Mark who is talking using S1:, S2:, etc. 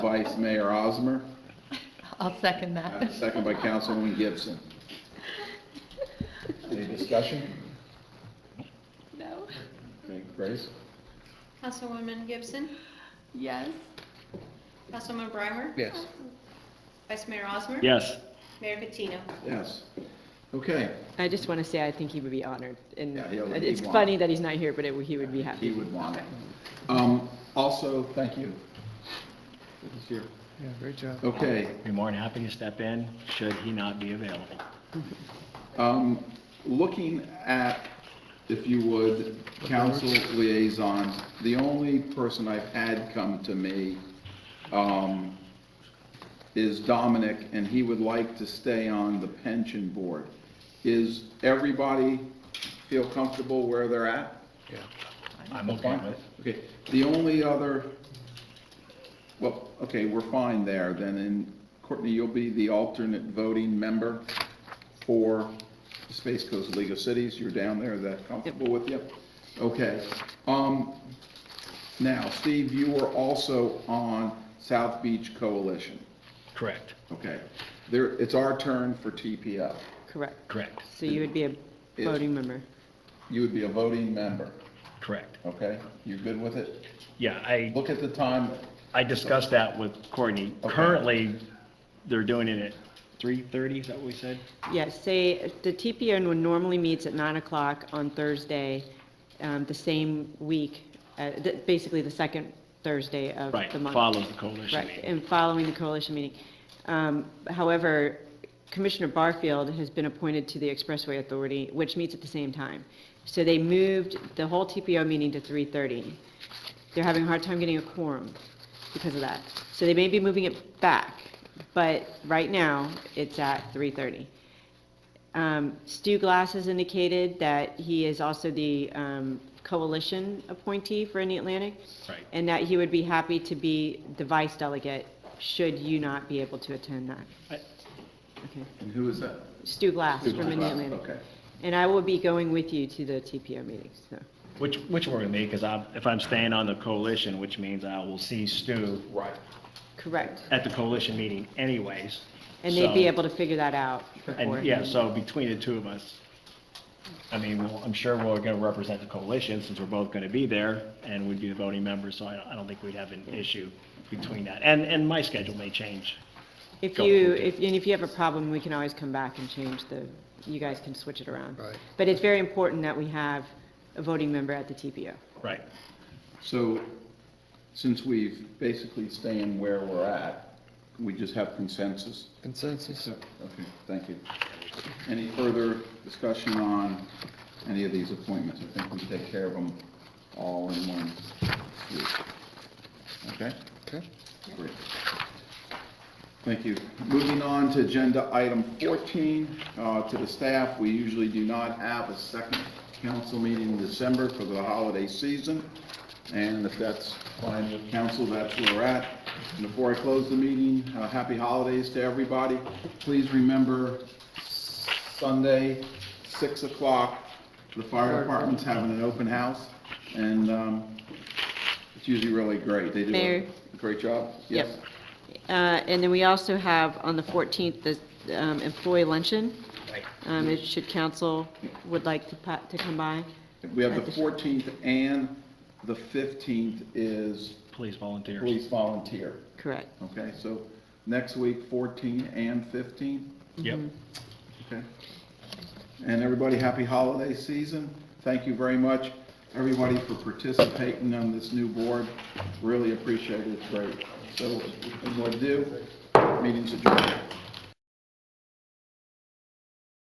S1: Vice Mayor Osmer,
S2: I'll second
S1: and
S2: that.
S1: a second by Councilwoman Gibson. Any discussion?
S3: No.
S1: Okay, Grace?
S3: Councilwoman Gibson?
S2: Yes.
S3: Councilwoman Brimer?
S1: Yes.
S3: Vice Mayor Osmer?
S4: Yes.
S3: Mayor Patino?
S1: Yes. Okay,
S5: I just want to say I think he would be honored, and
S1: Yeah, he'll- he'd
S5: it's
S1: want
S5: funny
S1: it.
S5: that he's not here, but it, he would be
S1: he
S5: happy.
S1: would want it. Um, also, thank you. This year.
S6: Yeah, great job.
S1: Okay,
S4: Be more than happy to step in, should he not be available.
S1: um, looking at, if you would, council liaisons, the only person I've had come to me, um, is Dominic, and he would like to stay on the pension board. Is everybody feel comfortable where they're at?
S4: I'm okay with it.
S1: Okay, the only other, well, okay, we're fine there, then, and Courtney, you'll be the alternate voting member for the Space Coast League of Cities, you're down there, is that comfortable with you? Okay, um, now, Steve, you were also on South Beach Coalition,
S4: Correct,
S1: okay? There, it's our turn for TPO,
S5: Correct.
S4: correct,
S5: So you would be a voting member.
S1: you would be a voting member,
S4: correct.
S1: okay? You good with it?
S4: Yeah, I,
S1: Look at the time,
S4: I discussed that with Courtney.
S1: Okay.
S4: Currently, they're doing it at 3:30, is that what we said?
S5: Yes, say, the TPN would normally meets at nine o'clock on Thursday, um, the same week, uh, the- basically the second Thursday of
S4: Right,
S5: the month.
S4: follows the coalition
S5: Right,
S4: meeting.
S5: and following the coalition meeting. Um, However, Commissioner Barfield has been appointed to the Expressway Authority, which meets at the same time. So they moved the whole TPO meeting to 3:30. They're having a hard time getting a quorum because of that. So they may be moving it back, but right now, it's at 3:30. Um, Stu Glass has indicated that he is also the um, coalition appointee for Indian Atlantic.
S4: Right.
S5: And that he would be happy to be the vice delegate, should you not be able to attend that.
S4: I-
S5: Okay.
S1: and who is that?
S5: Stu Glass
S1: Stu
S5: from Indian
S1: Glass,
S5: Atlantic.
S1: okay.
S5: And I will be going with you to the TPO meetings, so.
S4: Which, which worry me, because I, if I'm staying on the coalition, which means I will see Stu
S1: Right.
S5: Correct.
S4: at the coalition meeting anyways.
S5: And they'd be
S4: so-
S5: able to figure that out
S4: And
S5: beforehand.
S4: yeah, so between the two of us, I mean, we'll- I'm sure we're going to represent the coalition since we're both going to be there and we'd be the voting members, so I don't- I don't think we'd have an issue between that. And, and my schedule may change.
S5: If
S4: Go
S5: you,
S4: for it.
S5: if, and if you have a problem, we can always come back and change the, you guys can switch it around.
S6: Right.
S5: But it's very important that we have a voting member at the TPO.
S4: Right.
S1: So, since we've basically staying where we're at, we just have consensus?
S6: Consensus?
S1: Okay, thank you. Any further discussion on any of these appointments? I think we take care of them all in one group. Okay?
S6: Okay.
S1: Great. Thank you. Moving on to agenda item 14, uh, to the staff, we usually do not have a second council meeting in December for the holiday season, and if that's fine with council, that's where we're at. And before I close the meeting, uh, happy holidays to everybody. Please remember, Sunday, 6 o'clock, the fire department's having an open house, and um, it's usually really great. They do
S5: Mayor?
S1: a great job.
S5: Yep.
S1: Yes.
S5: Uh, And then we also have on the 14th, the um, employee luncheon. Um, It should council would like to pa- to come by.
S1: We have the 14th and the 15th is
S4: Please volunteer.
S1: police volunteer.
S5: Correct.
S1: Okay, so next week, 14 and 15,
S4: Yep.
S1: okay? And everybody, happy holiday season. Thank you very much, everybody, for participating on this new board. Really appreciate it, it's great. So, what do, meeting's adjourned.